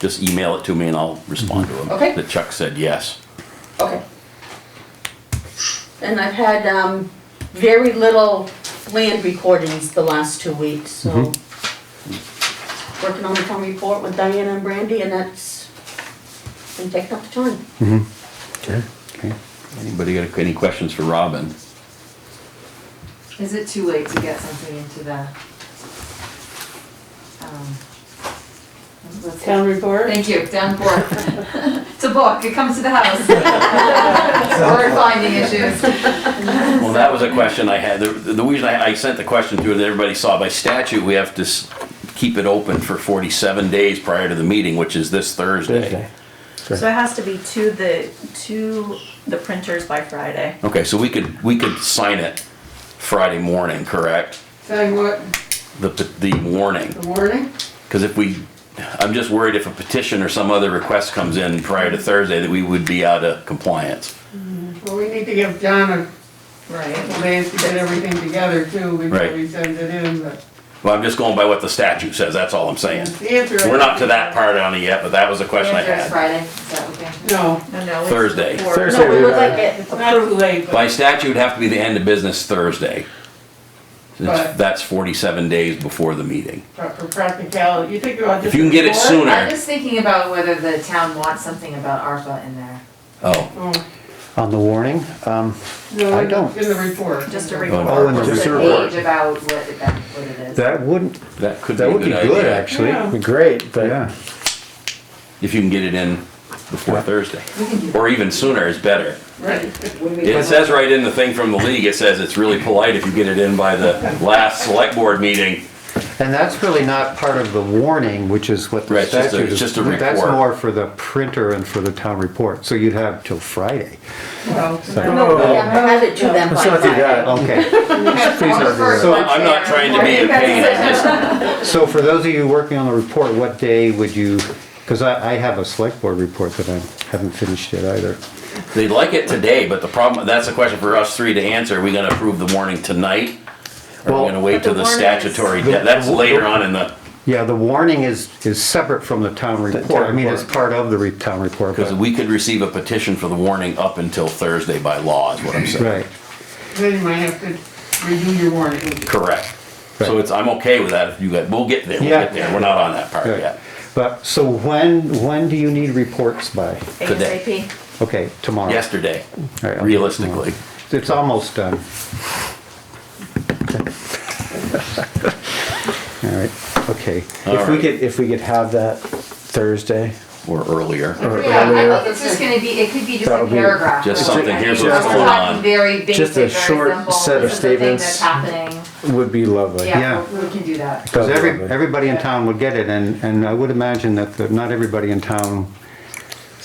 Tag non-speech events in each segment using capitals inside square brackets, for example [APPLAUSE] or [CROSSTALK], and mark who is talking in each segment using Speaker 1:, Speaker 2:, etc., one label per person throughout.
Speaker 1: Just email it to me and I'll respond to him.
Speaker 2: Okay.
Speaker 1: That Chuck said yes.
Speaker 2: Okay. And I've had, um, very little land recordings the last two weeks, so. Working on the town report with Diana and Brandy, and that's been taking up the time.
Speaker 1: Okay. Anybody got any questions for Robin?
Speaker 3: Is it too late to get something into the? um, what's it-
Speaker 4: Town report?
Speaker 3: Thank you, down board. [LAUGHS] It's a book, it comes to
Speaker 5: [LAUGHS]
Speaker 3: the house. [LAUGHS] Word finding issues.
Speaker 1: Well, that was a question I had. The, the reason I, I sent the question through that everybody saw, by statute, we have to s- keep it open for forty-seven days prior to the meeting, which is this Thursday.
Speaker 6: So it has to be to the, to the printers by Friday.
Speaker 1: Okay, so we could, we could sign it Friday morning, correct?
Speaker 4: Saying what,
Speaker 1: The, the warning.
Speaker 4: the warning?
Speaker 1: Because if we, I'm just worried if a petition or some other request comes in prior to Thursday, that we would be out of compliance.
Speaker 4: Well, we need to give John a
Speaker 3: Right.
Speaker 4: couple days to get everything together too
Speaker 1: Right.
Speaker 4: before we send it in, but.
Speaker 1: Well, I'm just going by what the statute says, that's all I'm saying.
Speaker 4: the answer is-
Speaker 1: Oh, We're not to that part on it yet, but that was a question I
Speaker 3: Answer is
Speaker 1: had.
Speaker 3: Friday, is that okay?
Speaker 4: No,
Speaker 6: No, no. it's
Speaker 1: Thursday.
Speaker 6: before-
Speaker 7: Thursday.
Speaker 2: No, we would like it
Speaker 4: it's not too late, but
Speaker 1: By statute, it'd have to be the end of business Thursday. Since
Speaker 4: Right.
Speaker 1: That's forty-seven days before the meeting.
Speaker 4: for practicality, you think about
Speaker 1: If
Speaker 4: just.
Speaker 1: you can get it
Speaker 4: before?
Speaker 1: sooner.
Speaker 3: I'm just thinking about whether the town wants something about ARPA in there.
Speaker 1: Oh,
Speaker 4: Oh,
Speaker 7: On the warning, um,
Speaker 4: No,
Speaker 7: I
Speaker 4: in
Speaker 7: don't.
Speaker 4: the report.
Speaker 6: Just a
Speaker 4: a
Speaker 6: report.
Speaker 7: Oh, and
Speaker 3: Just
Speaker 7: just
Speaker 3: a
Speaker 7: a
Speaker 3: page about what it, that- what it is.
Speaker 7: that wouldn't,
Speaker 1: that could be a
Speaker 7: that
Speaker 1: good
Speaker 7: would be
Speaker 1: idea.
Speaker 7: good, actually.
Speaker 4: Yeah.
Speaker 7: Be Great, but
Speaker 1: If you can get it in before Thursday, or even sooner is better.
Speaker 4: Right,
Speaker 1: It says right in the thing from the league, it says it's really polite if you get it in by the last select board meeting.
Speaker 7: And that's really not part of the warning, which is what
Speaker 1: Right,
Speaker 7: the
Speaker 1: it's just a-
Speaker 7: statute
Speaker 1: it's
Speaker 7: is.
Speaker 1: just a
Speaker 7: That's
Speaker 1: report.
Speaker 7: more for the printer and for the town report, so you'd have till Friday.
Speaker 4: well.
Speaker 2: No, we haven't had it to them by Friday.
Speaker 7: Okay,
Speaker 3: Please
Speaker 7: don't do that. So
Speaker 1: I'm not trying to be a pain, I just,
Speaker 7: so for those of you working on the report, what day would you, because I, I have a select board report that I haven't finished yet either.
Speaker 1: they'd like it today, but the problem, that's a question for us three to answer. Are we gonna approve the warning tonight? Or are
Speaker 7: Well-
Speaker 1: we gonna wait
Speaker 6: But the
Speaker 1: till the
Speaker 6: warning is-
Speaker 1: statutory, de- that's later on in the,
Speaker 7: Yeah, the warning is, is separate from the town report. I mean, it's part of the re- town report.
Speaker 1: because
Speaker 7: but-
Speaker 1: we could receive a petition for the warning up until Thursday by law is what I'm saying.
Speaker 7: Right.
Speaker 4: Then you might have to redo your warning.
Speaker 1: Correct. So
Speaker 7: Right.
Speaker 1: it's, I'm okay with that if you guys, we'll get there, we'll
Speaker 7: Yeah.
Speaker 1: get there. We're not on that part
Speaker 7: Right.
Speaker 1: yet.
Speaker 7: But, so when, when do you need reports by?
Speaker 1: Today.
Speaker 6: ASAP.
Speaker 7: Okay, tomorrow.
Speaker 1: Yesterday,
Speaker 7: All right, I'll-
Speaker 1: realistically.
Speaker 7: It's almost [LAUGHS] done. All right, okay.
Speaker 1: All
Speaker 5: If we
Speaker 1: right.
Speaker 5: could, if we could have that Thursday,
Speaker 1: or earlier.
Speaker 3: Yeah, I think it's just gonna be, it could be just a
Speaker 5: That'll be
Speaker 3: paragraph.
Speaker 1: just
Speaker 3: like,
Speaker 1: something,
Speaker 3: I
Speaker 1: here's
Speaker 3: think
Speaker 1: what's
Speaker 3: we're
Speaker 1: going
Speaker 3: talking
Speaker 1: on.
Speaker 3: Very basic,
Speaker 5: Just a
Speaker 3: very
Speaker 5: short
Speaker 3: simple.
Speaker 5: set of
Speaker 3: This is the thing
Speaker 5: statements.
Speaker 3: that's happening.
Speaker 5: would be lovely.
Speaker 7: Yeah.
Speaker 3: Yeah, we we can do that.
Speaker 7: Because every,
Speaker 5: Lovely.
Speaker 7: everybody in town would get it, and, and I would imagine that the- not everybody in town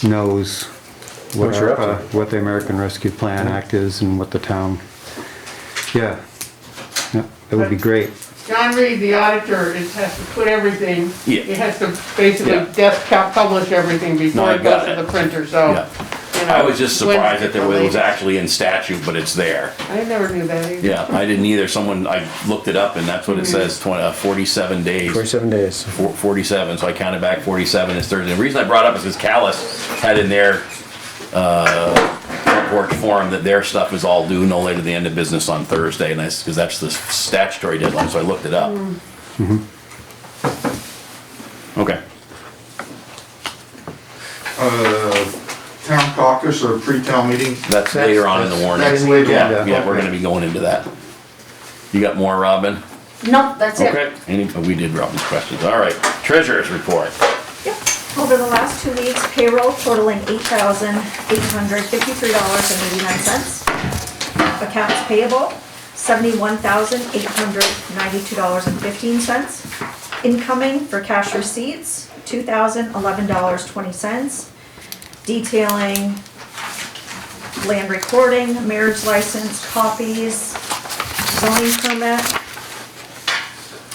Speaker 7: knows what
Speaker 5: What you're up to.
Speaker 7: ARPA, what the American Rescue Plan Act is and what the town, yeah. Yeah, That would be great.
Speaker 4: John Reed, the auditor, is, has to put everything,
Speaker 1: Yeah.
Speaker 4: he has to basically
Speaker 1: Yeah.
Speaker 4: desktop publish everything before
Speaker 1: I
Speaker 4: it goes
Speaker 1: got
Speaker 4: to
Speaker 1: it.
Speaker 4: the printer, so.
Speaker 1: Yeah.
Speaker 4: you know,
Speaker 1: I was just
Speaker 4: when-
Speaker 1: surprised that there was it was actually in statute, but it's there.
Speaker 4: I never knew that either.
Speaker 1: Yeah, I didn't either. Someone, I looked it up and that's what it
Speaker 6: Mm-hmm.
Speaker 1: says, 20 uh, 47 days.
Speaker 5: Forty-seven days.
Speaker 1: Four- 47, so I counted back 47 is Thursday. The reason I brought up is because Callis had in their uh, report form that their stuff is all due no later than the end of business on Thursday, and that's, because that's the statutory deadline, so I looked it up. Okay.
Speaker 8: uh, town caucus or pre-town meeting.
Speaker 1: That's later on in the warning.
Speaker 8: That's later on.
Speaker 1: Yeah, yeah, we're gonna be going into that. You got more, Robin?
Speaker 2: No, that's it.
Speaker 1: Okay. Any, oh, we did Robin's questions, all right. Treasurer's report.
Speaker 6: Yep. Over the last two weeks, payroll totaling eight thousand eight hundred fifty-three dollars and eighty-nine cents. Accounts payable, seventy-one thousand eight hundred ninety-two dollars and fifteen cents. Incoming for cash receipts, two thousand eleven dollars twenty cents. Detailing land recording, marriage license, copies, zoning permit,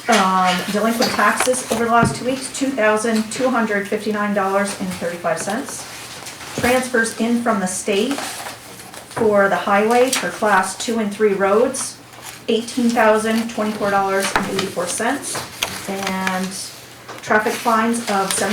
Speaker 6: um, delinquent taxes over the last two weeks, two thousand two hundred fifty-nine dollars and thirty-five cents. Transfers in from the state for the highway for class two and three roads, eighteen thousand twenty-four dollars and eighty-four cents. And traffic fines of seventy.